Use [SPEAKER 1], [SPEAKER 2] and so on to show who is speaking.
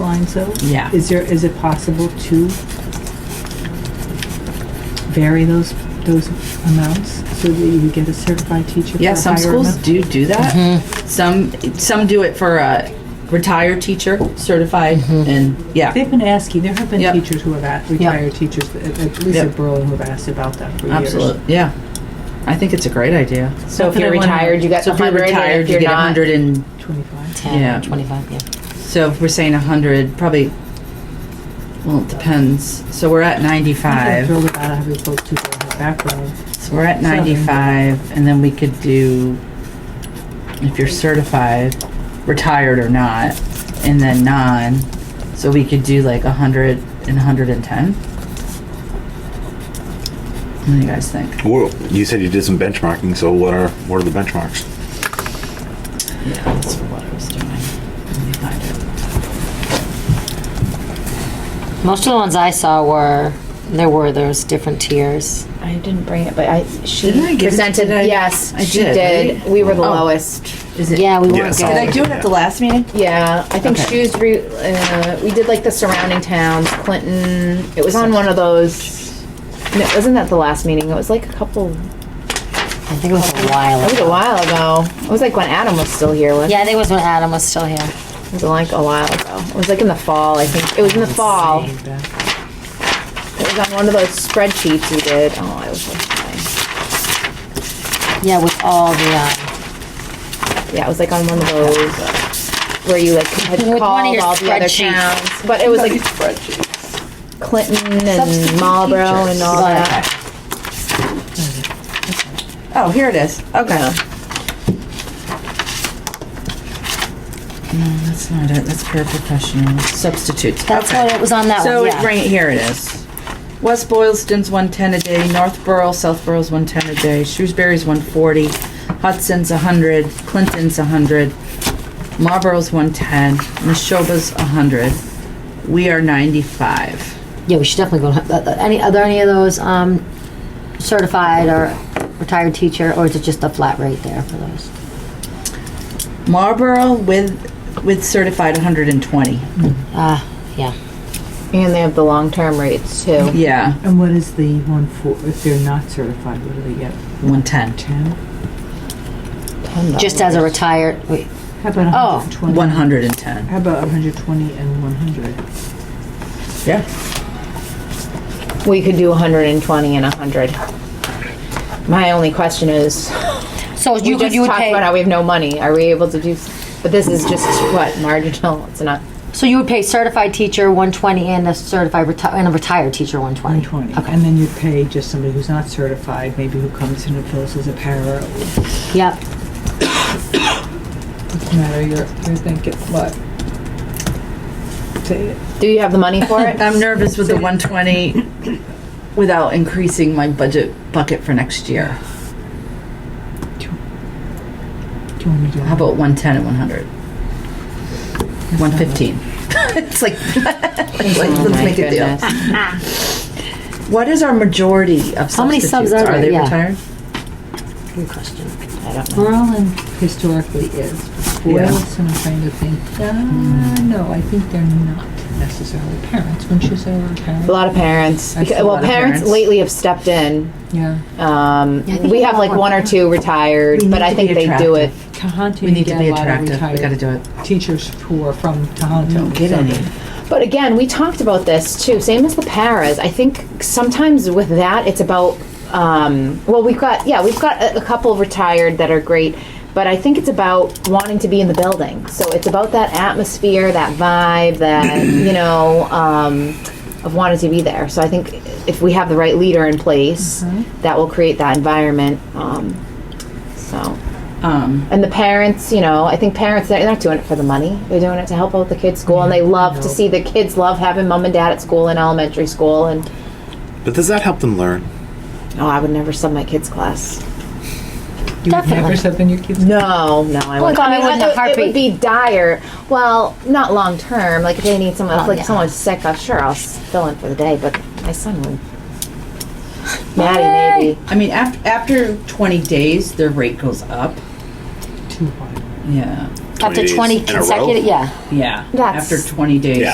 [SPEAKER 1] zone?
[SPEAKER 2] Yeah.
[SPEAKER 1] Is there, is it possible to vary those, those amounts so that you get a certified teacher? for
[SPEAKER 2] Yeah,
[SPEAKER 1] a
[SPEAKER 2] some
[SPEAKER 1] higher
[SPEAKER 2] schools
[SPEAKER 1] amount?
[SPEAKER 2] do do that.
[SPEAKER 3] Mm-hmm.
[SPEAKER 2] Some some do it for a retired teacher, certified,
[SPEAKER 3] Mm-hmm.
[SPEAKER 2] and yeah,
[SPEAKER 1] They've been asking, there have been
[SPEAKER 2] Yep.
[SPEAKER 1] teachers who have asked, retired teachers, at at least
[SPEAKER 2] Yep.
[SPEAKER 1] at Berlin, who have asked about that for years.
[SPEAKER 2] absolutely, yeah. I think it's a great idea.
[SPEAKER 3] So if
[SPEAKER 1] that I
[SPEAKER 3] you're
[SPEAKER 1] wanna-
[SPEAKER 3] retired, you got
[SPEAKER 2] So
[SPEAKER 3] the
[SPEAKER 2] if you're
[SPEAKER 3] hundred, and
[SPEAKER 2] retired,
[SPEAKER 3] if
[SPEAKER 2] you
[SPEAKER 3] you're
[SPEAKER 2] get a
[SPEAKER 3] not,
[SPEAKER 2] hundred and
[SPEAKER 1] Twenty-five?
[SPEAKER 2] Yeah.
[SPEAKER 3] ten, twenty-five, yeah.
[SPEAKER 2] so if we're saying a hundred, probably. Well, it depends. So we're at
[SPEAKER 1] I'm
[SPEAKER 2] ninety-five.
[SPEAKER 1] thrilled about having folks who don't have background.
[SPEAKER 2] So we're at ninety-five, and then we could do if you're certified, retired or not, and then non. So we could do like a hundred and hundred and ten. What do you guys think?
[SPEAKER 4] Well, you said you did some benchmarking, so what are what are the benchmarks?
[SPEAKER 2] Yeah, that's what I was doing. Let me find it.
[SPEAKER 3] Most of the ones I saw were, there were those different tiers.
[SPEAKER 5] I didn't bring it, but I, she
[SPEAKER 2] Didn't I give it
[SPEAKER 5] presented,
[SPEAKER 2] today?
[SPEAKER 5] yes,
[SPEAKER 2] I
[SPEAKER 5] she
[SPEAKER 2] did,
[SPEAKER 5] did.
[SPEAKER 2] right?
[SPEAKER 5] We were the
[SPEAKER 2] Oh.
[SPEAKER 5] lowest.
[SPEAKER 2] Is it?
[SPEAKER 3] Yeah, we
[SPEAKER 4] Yeah,
[SPEAKER 3] weren't
[SPEAKER 4] some-
[SPEAKER 2] Did I
[SPEAKER 3] good.
[SPEAKER 2] do it at the last meeting?
[SPEAKER 5] Yeah, I think
[SPEAKER 2] Okay.
[SPEAKER 5] Shrewsbury, uh, we did like the surrounding towns, Clinton, it was on one of those. No, wasn't that the last meeting? It was like a couple, that
[SPEAKER 3] I think it was a while
[SPEAKER 5] was a
[SPEAKER 3] ago.
[SPEAKER 5] while ago. It was like when Adam was still here, wasn't it?
[SPEAKER 3] Yeah, I think it was when Adam was still here.
[SPEAKER 5] It was like a while ago. It was like in the fall, I think. It was in the fall. It was on one of those spreadsheets we did. Oh, I was like,
[SPEAKER 3] Yeah, with all the, uh,
[SPEAKER 5] yeah, it was like on one of those uh, where you like had
[SPEAKER 3] With one of
[SPEAKER 5] called
[SPEAKER 3] your
[SPEAKER 5] all the other
[SPEAKER 3] spreadsheets.
[SPEAKER 5] towns, but it was like Clinton and Marlboro and all that.
[SPEAKER 2] Oh, here it is. Okay. No, that's not it. That's paraprofessional. Substitutes.
[SPEAKER 3] that's
[SPEAKER 2] Okay.
[SPEAKER 3] what it was on that
[SPEAKER 2] So
[SPEAKER 3] one,
[SPEAKER 2] it
[SPEAKER 3] yeah.
[SPEAKER 2] right here it is. West Boylston's one ten a day, Northborough, Southborough's one ten a day, Shrewsbury's one forty, Hudson's a hundred, Clinton's a hundred, Marlboro's one ten, Neshoba's a hundred. We are ninety-five.
[SPEAKER 3] Yeah, we should definitely go, to- uh, uh, any, are there any of those, um, certified or retired teacher, or is it just a flat rate there for those?
[SPEAKER 2] Marlboro with with certified one hundred and twenty.
[SPEAKER 3] Ah, yeah.
[SPEAKER 5] And they have the long term rates too.
[SPEAKER 2] Yeah,
[SPEAKER 1] And what is the one for, if they're not certified, what do they get,
[SPEAKER 2] one ten.
[SPEAKER 1] ten?
[SPEAKER 3] Just as a retired, wait,
[SPEAKER 1] How about a
[SPEAKER 3] Oh,
[SPEAKER 1] hundred and twenty?
[SPEAKER 2] One hundred and ten.
[SPEAKER 1] How about a hundred twenty and one hundred?
[SPEAKER 2] Yeah.
[SPEAKER 5] We could do 120 and 100. My only question is
[SPEAKER 3] so
[SPEAKER 5] we
[SPEAKER 3] you could,
[SPEAKER 5] just
[SPEAKER 3] you would
[SPEAKER 5] talked about how
[SPEAKER 3] pay,
[SPEAKER 5] we have no money. Are we able to do? But this is just what marginal. It's not.
[SPEAKER 3] so you would pay certified teacher one twenty and a certified reti- and a retired teacher one twenty?
[SPEAKER 1] One twenty, and then you pay just somebody who's not certified, maybe who comes in and fills as a para, it doesn't
[SPEAKER 3] Yep,
[SPEAKER 1] matter, you're, you're thinking, what? Say it.
[SPEAKER 5] Do you have the money for it?
[SPEAKER 2] I'm nervous with the 120 without increasing my budget bucket for next year.
[SPEAKER 1] Do you want me to?
[SPEAKER 2] How about 110 and 100? 115. it's like, it's like,
[SPEAKER 5] Oh
[SPEAKER 2] let's
[SPEAKER 5] my
[SPEAKER 2] make a deal.
[SPEAKER 5] goodness.
[SPEAKER 2] What is our majority of
[SPEAKER 3] How many subs
[SPEAKER 2] substitutes?
[SPEAKER 3] are there?
[SPEAKER 2] they
[SPEAKER 3] Yeah.
[SPEAKER 2] retired?
[SPEAKER 3] good question.
[SPEAKER 5] I don't know.
[SPEAKER 1] Berlin historically is.
[SPEAKER 2] Yeah. Hmm.
[SPEAKER 1] Boylston, I'm trying to think, uh, no, I think they're not necessarily parents, when she's over parents.
[SPEAKER 5] A lot of parents.
[SPEAKER 1] That's
[SPEAKER 5] Because,
[SPEAKER 1] a
[SPEAKER 5] well,
[SPEAKER 2] lot of
[SPEAKER 5] parents,
[SPEAKER 2] parents.
[SPEAKER 5] lately have stepped in.
[SPEAKER 1] Yeah.
[SPEAKER 5] Um,
[SPEAKER 3] Yeah, I think
[SPEAKER 5] we
[SPEAKER 3] a
[SPEAKER 5] have
[SPEAKER 3] lot
[SPEAKER 5] like
[SPEAKER 3] more
[SPEAKER 5] one or
[SPEAKER 3] parents.
[SPEAKER 5] two retired,
[SPEAKER 2] We
[SPEAKER 5] but
[SPEAKER 2] need
[SPEAKER 5] I
[SPEAKER 2] to
[SPEAKER 5] think
[SPEAKER 2] be
[SPEAKER 5] they do it.
[SPEAKER 2] attractive.
[SPEAKER 1] Tohoto,
[SPEAKER 2] We
[SPEAKER 1] you
[SPEAKER 2] need to
[SPEAKER 1] get
[SPEAKER 2] be
[SPEAKER 1] a lot of
[SPEAKER 2] attractive. We
[SPEAKER 1] retired
[SPEAKER 2] gotta do it.
[SPEAKER 1] Teachers who are from Tohoto.
[SPEAKER 2] Don't get
[SPEAKER 1] so-
[SPEAKER 2] any.
[SPEAKER 5] But again, we talked about this too. Same as the paras. I think sometimes with that, it's about. Um, well, we've got yeah, we've got a, a couple retired that are great, but I think it's about wanting to be in the building. So it's about that atmosphere, that vibe, that you know, um, of wanting to be there. So I think if we have the right leader in place, that will create that environment. Um, so.
[SPEAKER 2] Um,
[SPEAKER 5] And the parents, you know, I think parents, they're not doing it for the money. They're doing it to help out the kids' school, and they love to see the kids love having mom and dad at school in elementary school. And
[SPEAKER 4] But does that help them learn?
[SPEAKER 5] oh, I would never sub my kids'
[SPEAKER 1] You
[SPEAKER 5] class.
[SPEAKER 1] would
[SPEAKER 3] Definitely.
[SPEAKER 1] never something your kids.
[SPEAKER 5] No, no, I wouldn't.
[SPEAKER 3] God, I wouldn't
[SPEAKER 5] it-
[SPEAKER 3] have
[SPEAKER 5] it would be dire. Well, not long term. Like if they need someone, if,
[SPEAKER 3] Oh,
[SPEAKER 5] like
[SPEAKER 3] yeah.
[SPEAKER 5] someone's sick, I'm sure I'll s- fill in for the day. But my son would. Maddie, maybe.
[SPEAKER 2] I mean, after, after 20 days, their rate goes up.
[SPEAKER 1] Too hard.
[SPEAKER 2] Yeah.
[SPEAKER 3] Up to
[SPEAKER 4] 20 days
[SPEAKER 3] twenty
[SPEAKER 4] in a row?
[SPEAKER 3] consecutive, yeah.
[SPEAKER 2] Yeah.
[SPEAKER 5] That's-
[SPEAKER 2] after 20 days.
[SPEAKER 4] Yeah,